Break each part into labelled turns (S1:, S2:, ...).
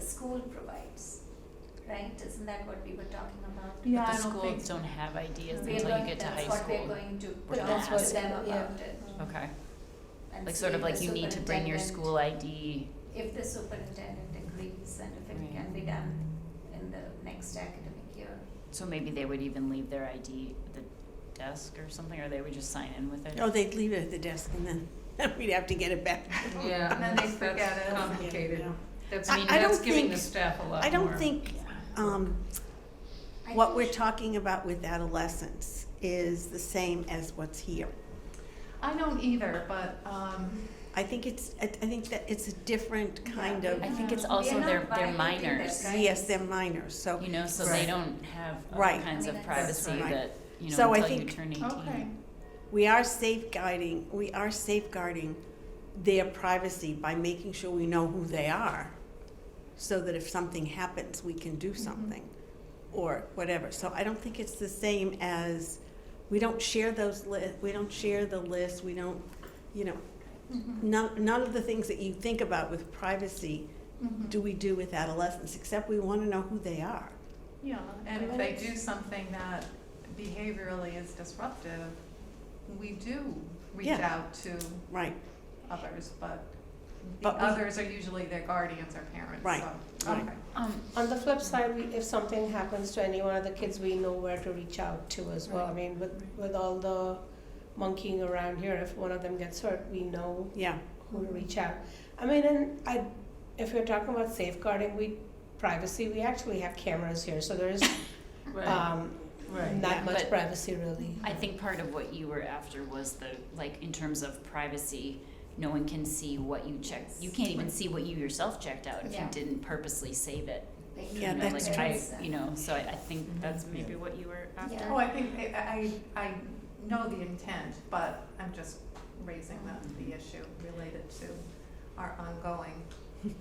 S1: school provides, right? Isn't that what we were talking about?
S2: Yeah,
S3: But
S2: I
S3: the
S2: don't think.
S3: schools don't have ideas
S1: We're
S3: until you
S1: going-
S3: get to high school.
S1: That's what we're going to
S3: But
S1: talk
S3: that's
S1: to
S3: what-
S1: them
S2: yeah.
S1: about it.
S3: Okay,
S1: and
S3: like
S1: see
S3: sort of
S1: if
S3: like
S1: the
S3: you need to bring your
S1: superintendent-
S3: school ID,
S1: If the superintendent agrees and if it
S3: Right.
S1: can be done in the next academic year.
S3: so maybe they would even leave their ID at the desk or something, or they would just sign in with it.
S4: Oh, they'd leave it at the desk and then we'd have to get it back.
S5: Yeah,
S4: And then they
S5: that's-
S1: forget
S5: that's
S1: it.
S5: complicated.
S4: Yeah.
S5: That's,
S4: I-
S5: I mean,
S4: I don't
S5: that's giving the
S4: think-
S5: staff a lot more.
S4: I don't think, um,
S1: I
S4: what
S1: think
S4: we're
S1: she-
S4: talking about with adolescents is the same as what's here.
S2: I don't either, but, um,
S4: I think it's, I I think that it's a different
S1: Yeah,
S4: kind
S1: we
S4: of,
S3: I think it's
S1: Yeah. We're
S3: also
S1: not
S3: their, their
S1: violating that
S3: minors,
S1: guidance.
S4: yes, they're minors, so.
S3: you know, so they
S5: Right.
S3: don't have
S4: Right.
S3: all kinds
S1: I mean, that's-
S3: of privacy
S4: Right.
S3: that, you
S4: So
S3: know,
S4: I
S3: until you
S4: think-
S3: turn eighteen.
S2: okay.
S4: We are safeguarding, we are safeguarding their privacy by making sure we know who they are. So that if something happens, we can do something or whatever. So I don't think it's the same as, we don't share those li- we don't share the list, we don't, you know, none, none of the things that you think about with privacy
S2: Mhm.
S4: do we do with adolescents, except we wanna know who they are.
S2: Yeah, and if they do something that behaviorally is disruptive, we do reach
S4: Yeah.
S2: out to
S4: Right,
S2: others, but the
S4: But we-
S2: others are usually their guardians or parents,
S4: Right,
S2: so,
S4: right.
S2: okay.
S3: Um,
S6: On the flip side, we, if something happens to any one of the kids, we know where to reach out to as well. I mean, with, with all the monkeying around here, if one of them gets hurt, we know
S4: yeah.
S6: who to reach out. I mean, and I, if you're talking about safeguarding, we, privacy, we actually have cameras here, so there's,
S5: Right,
S6: um,
S5: right.
S6: not much
S3: But-
S6: privacy really.
S3: I think part of what you were after was the, like, in terms of privacy, no one can see what you checked, you can't even see what you yourself checked out if you
S1: Yeah.
S3: didn't purposely save it.
S1: They
S3: you
S4: Yeah,
S3: know,
S1: know
S4: that's
S3: like,
S1: there
S3: I-
S1: is, uh,
S3: You know, so I, I think
S5: Mhm.
S3: that's maybe what you were after.
S1: Mm-hmm. Yeah.
S2: Oh, I think, I, I, I know the intent, but I'm just raising the, the issue related to our ongoing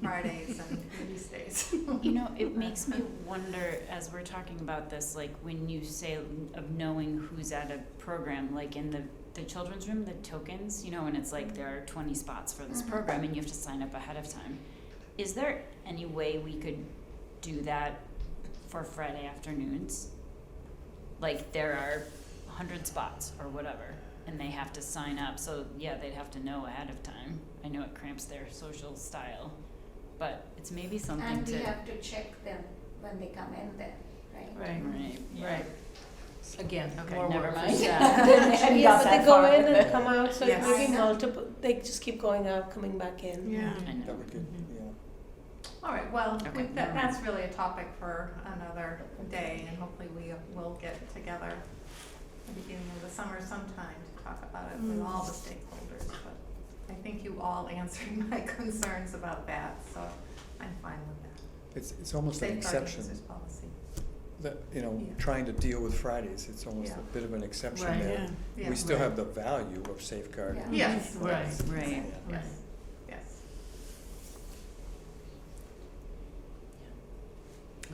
S2: Fridays and release days.
S3: You know, it makes me wonder as we're talking about this, like when you say of knowing who's at a program, like in the the children's room, the tokens, you know, and it's like there are twenty spots for this
S1: Mhm.
S3: program and you have to sign up ahead of time. Is there any way we could do that for Friday afternoons? Like there are hundred spots or whatever, and they have to sign up, so yeah, they'd have to know ahead of time. I know it cramps their social style, but it's maybe something
S1: And
S3: to
S1: we have to check them when they come in there, right?
S5: Right,
S3: Right,
S5: right. Again,
S3: Okay,
S5: more
S3: never
S5: work.
S3: mind.
S6: Yes,
S3: got
S6: but
S3: that
S6: they go
S3: far.
S6: in and come out, so
S4: Yes.
S6: maybe multiple, they just keep going out, coming back in.
S4: Yeah.
S3: I know.
S7: That we could, yeah.
S2: All right, well,
S3: Okay.
S2: we- that, that's really a topic for another day, and hopefully we will get together at the beginning of the summer sometime to talk about it with all the stakeholders, but I think you all answered my concerns about that, so I'm fine with that.
S7: It's, it's almost an
S2: Safeguard
S7: exception,
S2: users policy.
S7: that, you know,
S2: Yeah.
S7: trying to deal with Fridays, it's almost
S2: Yeah.
S7: a bit of an exception
S5: Right.
S7: there.
S2: Yeah.
S7: We still
S5: Right.
S7: have the value of safeguarding.
S1: Yeah.
S2: Yes,
S5: Right,
S3: Right.
S2: yes,
S5: right.
S2: yes.
S3: Mm-hmm.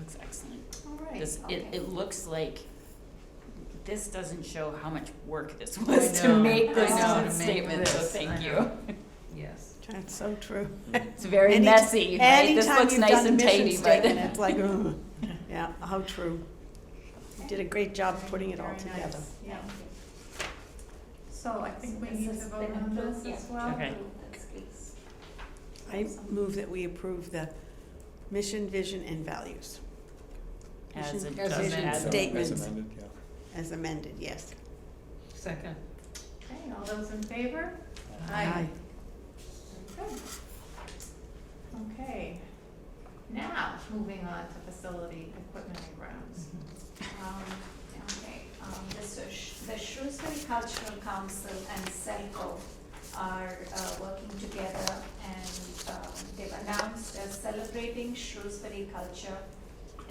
S3: Looks excellent.
S2: All right.
S3: This, it,
S1: okay.
S3: it looks like, this doesn't show how much work this was to
S5: know,
S3: make this
S1: I know,
S3: one
S5: make
S1: to
S3: statement, so
S5: this, I
S3: thank you.
S5: know. Yes.
S4: That's so true.
S3: It's very
S4: Any-
S3: messy, right? This
S4: Anytime
S3: looks
S4: you've
S3: nice
S4: done a
S3: and
S4: mission
S3: tidy,
S4: statement,
S3: but.
S4: it's like, ugh, yeah, how true. You did a great job
S2: Very-
S4: putting it all
S2: very nice.
S4: together.
S2: Yeah,
S1: Thank you.
S2: so
S1: Oh,
S2: I think we
S1: This
S2: need
S1: has
S2: to
S1: been
S2: vote on
S1: approved,
S2: this
S1: yeah.
S2: as well.
S3: Okay.
S1: That's great.
S4: I move that we approve the mission, vision, and values
S3: As it
S4: As
S3: does,
S4: vision
S3: as
S7: So,
S3: it-
S4: statement.
S7: As amended, yeah.
S4: as amended, yes.
S5: Second.
S2: Okay, all those in favor?
S4: Aye.
S2: Very good. Okay, now, moving on to facility equipment and grounds.
S1: Um, okay, um, the Shrews- the Shrewsbury Cultural Council and CELCO are, uh, working together and, um, they've announced a celebrating Shrewsbury culture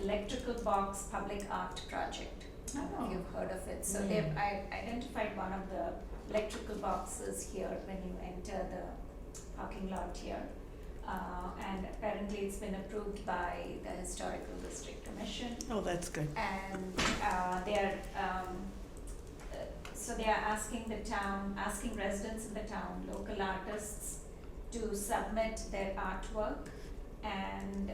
S1: electrical box public art project. I don't
S2: Oh.
S1: know if you've heard of it, so they've, I identified one of the electrical boxes here when you enter the parking lot here. Uh, and apparently it's been approved by the Historical District Commission
S4: Oh, that's good.
S1: and uh, they are, um, uh, so they are asking the town, asking residents in the town, local artists, to submit their artwork and